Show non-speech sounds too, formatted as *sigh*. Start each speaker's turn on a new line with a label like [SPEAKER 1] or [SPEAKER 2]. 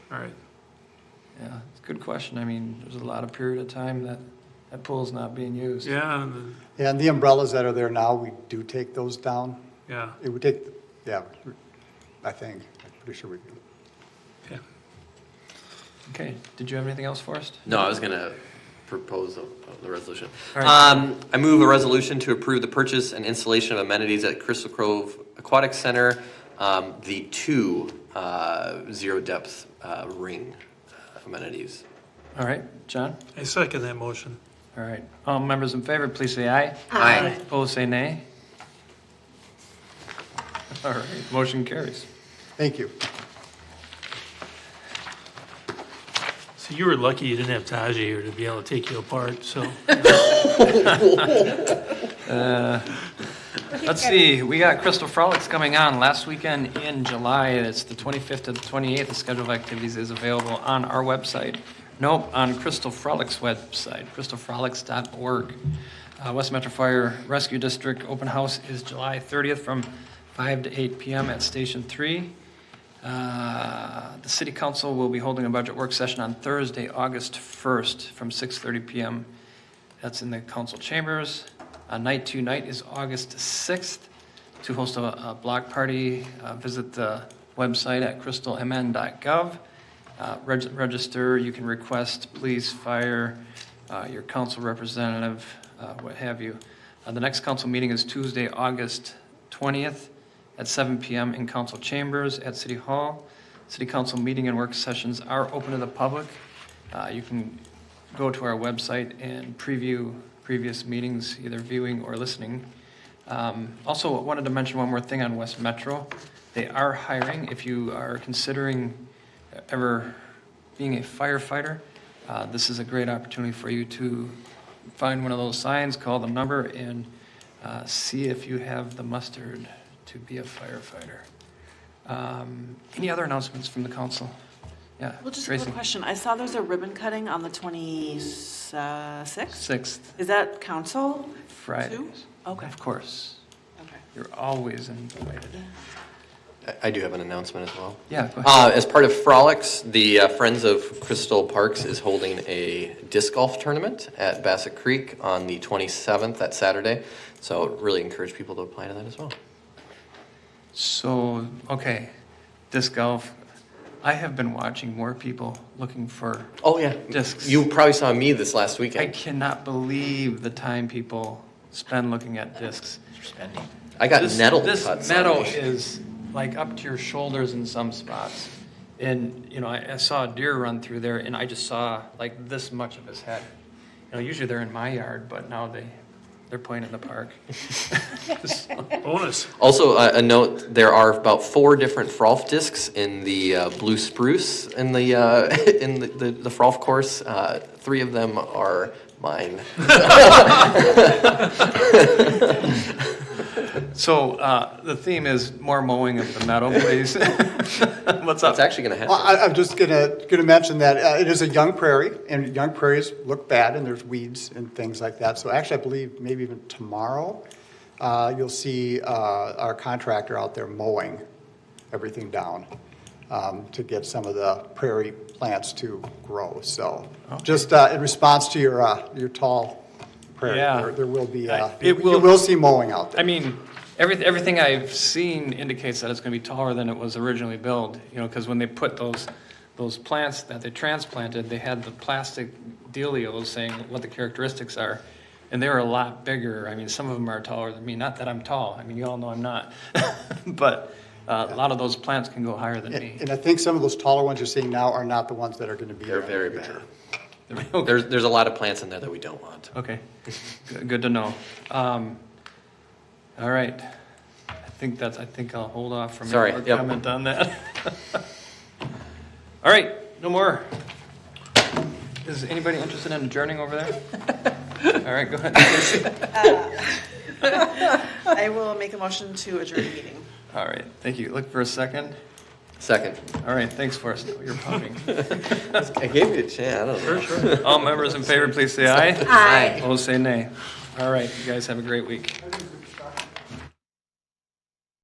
[SPEAKER 1] All right,
[SPEAKER 2] Yeah, it's a good question. I mean, there's a lot of period of time that that pool's not being used.
[SPEAKER 1] yeah, and,
[SPEAKER 3] And the umbrellas that are there now, we do take those down.
[SPEAKER 1] yeah,
[SPEAKER 3] It would take, yeah, I think, I'm pretty sure we do.
[SPEAKER 1] okay.
[SPEAKER 2] Okay, did you have anything else for us?
[SPEAKER 4] No, I was going to propose the- the resolution.
[SPEAKER 2] All right.
[SPEAKER 4] Um, I move a resolution to approve the purchase and installation of amenities at Crystal Cove Aquatic Center, um, the two uh, zero-depth uh, ring uh, amenities.
[SPEAKER 2] All right, John?
[SPEAKER 1] I second that motion.
[SPEAKER 2] All right. All members in favor, please say aye.
[SPEAKER 4] Aye.
[SPEAKER 2] Opposed, say nay. All right, motion carries.
[SPEAKER 3] Thank you.
[SPEAKER 1] So you were lucky you didn't have Taji here to be able to take you apart, so.
[SPEAKER 2] Let's see, we got Crystal Frolics coming on last weekend in July, and it's the 25th to the 28th. The schedule of activities is available on our website. Nope, on Crystal Frolics website, crystalfrolics.org. Uh, West Metro Fire Rescue District Open House is July 30th from 5 to 8 PM at Station 3. Uh, The city council will be holding a budget work session on Thursday, August 1st, from 6:30 PM. That's in the council chambers. Uh, Night two night is August 6th to host a a block party. Uh, Visit the website at crystalmn.gov. Uh, reg- Register, you can request police, fire, uh, your council representative, uh, what have you. Uh, The next council meeting is Tuesday, August 20th at 7 PM in council chambers at City Hall. City council meeting and work sessions are open to the public. Uh, You can go to our website and preview previous meetings, either viewing or listening. Um, Also, wanted to mention one more thing on West Metro. They are hiring, if you are considering ever being a firefighter, uh, this is a great opportunity for you to find one of those signs, call the number, and uh, see if you have the mustard to be a firefighter. Um, Any other announcements from the council? Yeah,
[SPEAKER 5] Well, just a
[SPEAKER 2] Tracy?
[SPEAKER 5] quick question. I saw there's a ribbon cutting on the 26th.
[SPEAKER 2] Sixth,
[SPEAKER 5] Is that council?
[SPEAKER 2] Fridays.
[SPEAKER 5] Okay.
[SPEAKER 2] Of course.
[SPEAKER 5] Okay.
[SPEAKER 2] You're always invited.
[SPEAKER 4] I- I do have an announcement as well.
[SPEAKER 2] Yeah, go ahead.
[SPEAKER 4] Uh, As part of Frolics, the uh, Friends of Crystal Parks is holding a disc golf tournament at Bassett Creek on the 27th, that Saturday. So really encourage people to apply to that as well.
[SPEAKER 2] So, okay, disc golf. I have been watching more people looking for,
[SPEAKER 4] Oh, yeah.
[SPEAKER 2] Discs.
[SPEAKER 4] You probably saw me this last
[SPEAKER 2] I
[SPEAKER 4] weekend.
[SPEAKER 2] cannot believe the time people spend looking at discs.
[SPEAKER 4] I got
[SPEAKER 2] This-
[SPEAKER 4] nettle
[SPEAKER 2] This
[SPEAKER 4] cuts on
[SPEAKER 2] metal
[SPEAKER 4] me.
[SPEAKER 2] is like up to your shoulders in some spots. And, you know, I, I saw a deer run through there and I just saw like this much of his head. You know, usually they're in my yard, but now they, they're playing in the park. So-
[SPEAKER 1] *laughs* Bonus.
[SPEAKER 4] Also, uh, a note, there are about four different frolf discs in the uh, blue spruce in the, uh, *laughs* in the- the the frolf course. Uh, Three of them are mine.
[SPEAKER 2] So uh, the theme is more mowing of the *laughs* meadow, please. *laughs* What's up?
[SPEAKER 4] It's actually going to
[SPEAKER 3] Well,
[SPEAKER 4] happen.
[SPEAKER 3] I, I'm just gonna, gonna mention that, uh, it is a young prairie, and young prairies look bad, and there's weeds and things like that. So actually, I believe maybe even tomorrow, uh, you'll see, uh, our contractor out there mowing everything down, um, to get some of the prairie plants to grow, so. Just, uh, in response to your, uh, your tall prairie,
[SPEAKER 2] Yeah.
[SPEAKER 3] there, there will be,
[SPEAKER 2] I-
[SPEAKER 3] uh,
[SPEAKER 2] it
[SPEAKER 3] you
[SPEAKER 2] will-
[SPEAKER 3] will see mowing out
[SPEAKER 2] I
[SPEAKER 3] there.
[SPEAKER 2] mean, everything, everything I've seen indicates that it's going to be taller than it was originally built, you know, because when they put those, those plants that they transplanted, they had the plastic dealios saying what the characteristics are, and they were a lot bigger. I mean, some of them are taller than me, not that I'm tall, I mean, you all know I'm not. *laughs* But uh, a lot of those plants can go higher than me. *laughs*
[SPEAKER 3] And and I think some of those taller ones you're seeing now are not the ones that are gonna be.
[SPEAKER 4] They're
[SPEAKER 3] there in the
[SPEAKER 4] very
[SPEAKER 3] future.
[SPEAKER 4] bad. There's, there's a lot of plants in there that we don't want.
[SPEAKER 2] Okay, Good- good to know. Um, All right, I think that's, I think I'll hold off from
[SPEAKER 4] Sorry,
[SPEAKER 2] any more
[SPEAKER 4] yep.
[SPEAKER 2] comment on that. *laughs* All right, no more. Is anybody interested in adjourning over there?
[SPEAKER 4] *laughs*
[SPEAKER 2] All right, go ahead.
[SPEAKER 5] I will make a motion to adjourn the meeting.
[SPEAKER 2] All right, thank you. Look for a second.
[SPEAKER 4] Second.
[SPEAKER 2] All right, thanks, Forrest, you're pumping.
[SPEAKER 4] I gave you a chance.
[SPEAKER 2] All members in favor, please say aye.
[SPEAKER 5] Aye.
[SPEAKER 2] Opposed, say nay. All right, you guys have a great week.